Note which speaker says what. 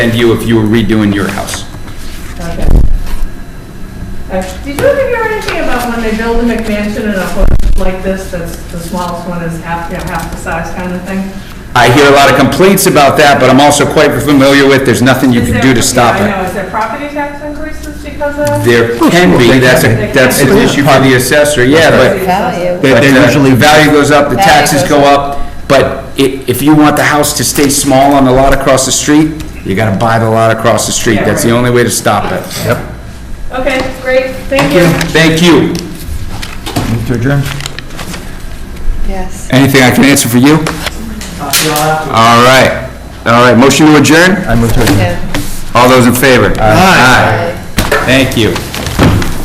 Speaker 1: than you if you were redoing your house.
Speaker 2: Okay. Uh, Did you ever hear anything about when they build a McMansion in a hood like this, that's the smallest one is half, you know, half the size kind of thing?
Speaker 1: I hear a lot of complaints about that, but I'm also quite familiar with, there's nothing you
Speaker 2: Is
Speaker 1: can
Speaker 2: there-
Speaker 1: do to stop
Speaker 2: yeah, I know,
Speaker 1: it.
Speaker 2: is there property tax increases because of?
Speaker 1: There can be, that's a, that's an issue for the assessor, yeah, but,
Speaker 3: Value.
Speaker 1: but
Speaker 4: They're
Speaker 1: uh,
Speaker 4: usually-
Speaker 1: the value goes up, the
Speaker 3: Value
Speaker 1: taxes
Speaker 3: goes
Speaker 1: go up, but i- if you want the house to stay small on the lot across the street, you gotta buy the lot across the street,
Speaker 2: Yeah,
Speaker 1: that's the
Speaker 2: right.
Speaker 1: only way to stop it.
Speaker 2: Okay, great, thank you.
Speaker 1: Thank you.
Speaker 4: Move to adjourn?
Speaker 3: Yes.
Speaker 1: Anything I can answer for you? All right, all right, motion to adjourn?
Speaker 4: I move to adjourn.
Speaker 3: Yeah.
Speaker 1: All those in favor? Aye. Thank you.